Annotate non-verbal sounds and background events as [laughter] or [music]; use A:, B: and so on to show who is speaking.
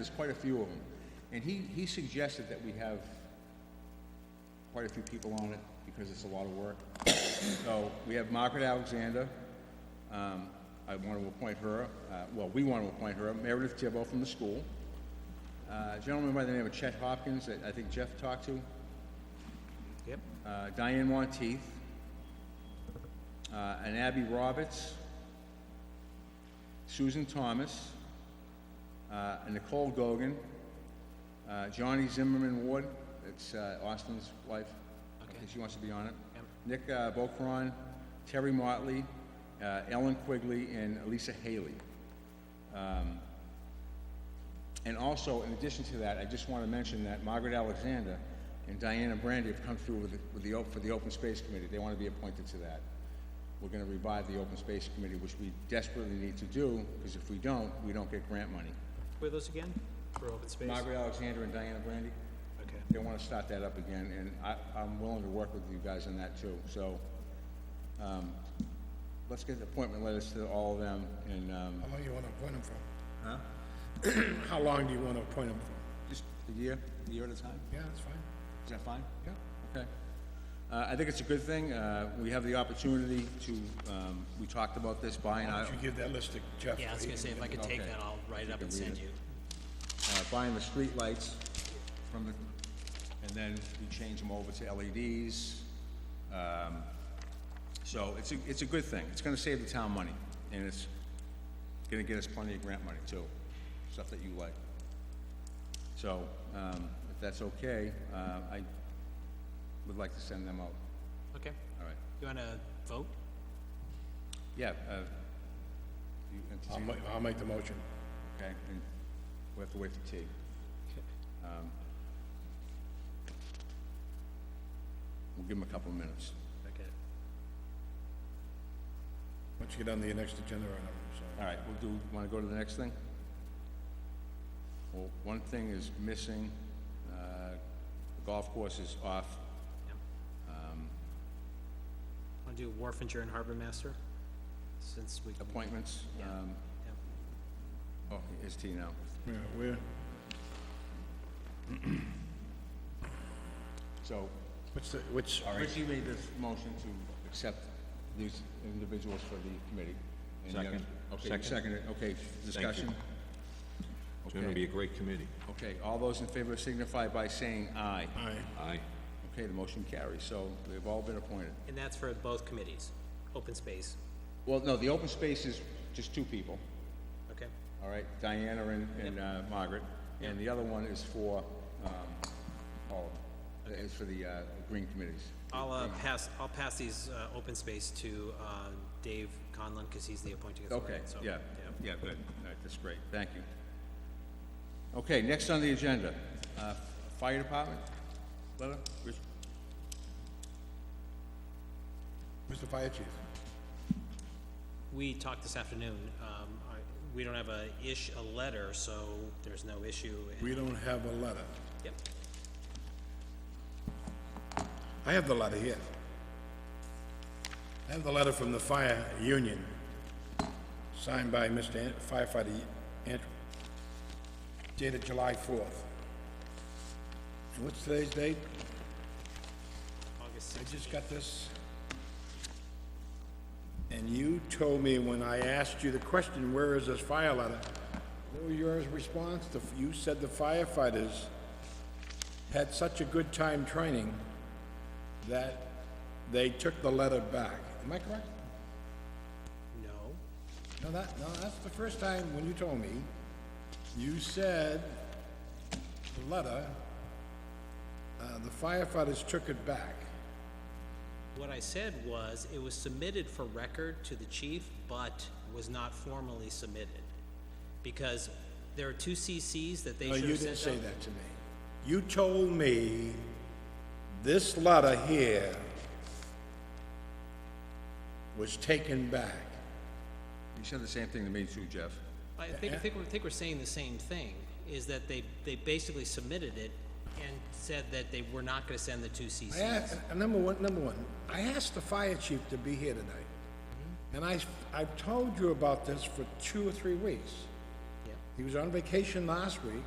A: There's quite a few of them. And he, he suggested that we have quite a few people on it because it's a lot of work. So we have Margaret Alexander. Um, I want to appoint her, uh, well, we want to appoint her, Meredith Thibault from the school. Uh, A gentleman by the name of Chet Hopkins that I think Jeff talked to.
B: Yep.
A: uh, Diane Monteith, uh, and Abby Roberts, Susan Thomas, uh, and Nicole Gogan, uh, Johnny Zimmerman Ward, that's uh, Austin's wife, I think she wants to be on it. Nick uh, Bokron, Terry Motley, uh, Ellen Quigley, and Elisa Haley. Um, And also, in addition to that, I just want to mention that Margaret Alexander and Diana Brandy have come through with the, with the, op- for the Open Space Committee. They want to be appointed to that. We're going to revive the Open Space Committee, which we desperately need to do, because if we don't, we don't get grant money.
B: Where are those again? For open space?
A: Margaret Alexander and Diana Brandy,
B: Okay.
A: they want to start that up again, and I, I'm willing to work with you guys on that too. So, um, let's get the appointment letters to all of them, and, um,
C: How long you want to appoint him for? Huh? [clears throat] How long do you want to appoint him for?
A: just a year, a year at a time.
C: Yeah, that's fine.
A: Is that fine?
C: Yeah.
A: Okay. Uh, I think it's a good thing. Uh, We have the opportunity to, um, we talked about this buying
C: Why
A: out,
C: don't you give that list to Jeff?
D: Yeah, I was
C: so he
D: gonna say,
C: can
D: if I
C: get
D: could take
A: Okay.
D: that, I'll write it up and
A: can read
D: send
A: it.
D: you.
A: uh, buying the streetlights from the, and then we change them over to LEDs. Um, So it's a, it's a good thing. It's gonna save the town money, and it's gonna get us plenty of grant money too, stuff that you like. So, um, if that's okay, uh, I would like to send them out.
D: Okay,
A: All right.
D: you wanna vote?
A: Yeah, uh, you, and
C: I'll
A: T-
C: make, I'll make the motion.
A: okay, and we have to wait for T. Um, We'll give him a couple of minutes.
D: Okay.
C: Once you get on the next agenda item, so.
A: All right, we'll do, wanna go to the next thing? Well, one thing is missing, uh, the golf course is off. Um,
D: Wanna do Warfinger and Harbor Master? Since we.
A: Appointments, um,
D: yeah.
A: oh, is T now.
C: Yeah, where,
A: So,
C: what's the, which,
A: Richie made this motion to accept these individuals for the committee. and the others-
E: Second.
A: Okay, you
E: Second.
A: seconded, it. okay, discussion?
E: It's gonna be a great committee.
A: Okay, all those in favor signify by saying aye.
C: aye,
E: Aye.
A: Okay, the motion carries, so they've all been appointed.
D: And that's for both committees, open space,
A: Well, no, the open space is just two people,
D: okay?
A: all right, Diana and, and uh, Margaret, and the other one is for, um, all, of them. is for the, uh, green committees.
D: I'll, uh, pass, I'll pass these, uh, open space to, uh, Dave Conlon, cause he's the appointing authority,
A: Okay,
D: so.
A: yeah, yeah, good, all right, that's great, thank you. Okay, next on the agenda, uh, fire department, letter, Rich-
C: Mr. Fire Chief?
D: We talked this afternoon, um, I, we don't have a ish, a letter, so there's no issue. and-
C: We don't have a letter.
D: Yep,
C: I have the letter here. I have the letter from the fire union, signed by Mr. An- firefighter Andrew, dated July 4th. And what's today's date?
D: August
C: I
D: sixth,
C: just got this. And you told me when I asked you the question, where is this fire letter? What was your response? The- You said the firefighters had such a good time training that they took the letter back. Am I correct?
D: no,
C: No, that, no, that's the first time when you told me, you said the letter, uh, the firefighters took it back.
D: What I said was, it was submitted for record to the chief, but was not formally submitted. Because there are two CCs that they
C: No,
D: should
C: Oh, you
D: have
C: didn't
D: sent
C: say
D: out.
C: that to me. You told me this letter here was taken back.
A: you said the same thing to me too, Jeff.
D: I think, I think, we're- I think we're saying the same thing, is that they, they basically submitted it and said that they were not gonna send the two
C: I
D: CCs.
C: asked, number one, number one, I asked the fire chief to be here tonight. And I, I've told you about this for two or three weeks.
D: Yeah.
C: He was on vacation last week.